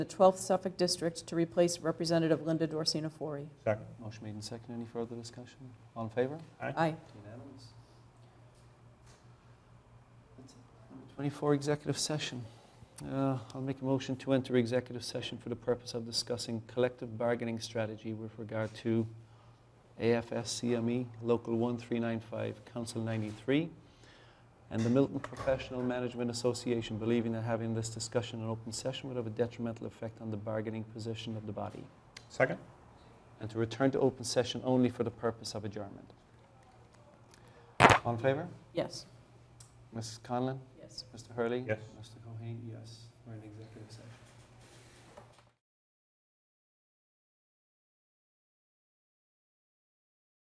the 12th Suffolk District to replace Representative Linda Dorsina Forey. Second. Motion made and second. Any further discussion? All in favor? Aye. Unanimous. That's it. Number 24, executive session. Uh, I'll make a motion to enter executive session for the purpose of discussing collective bargaining strategy with regard to AFSCME E, Local 1395, Council 93, and the Milton Professional Management Association, believing that having this discussion in open session would have a detrimental effect on the bargaining position of the body, Second? and to return to open session only for the purpose of adjournment. All in favor? Yes. Mrs. Conlon? Yes. Mr. Hurley? Yes. Mr. Cohen? Yes. We're in executive session.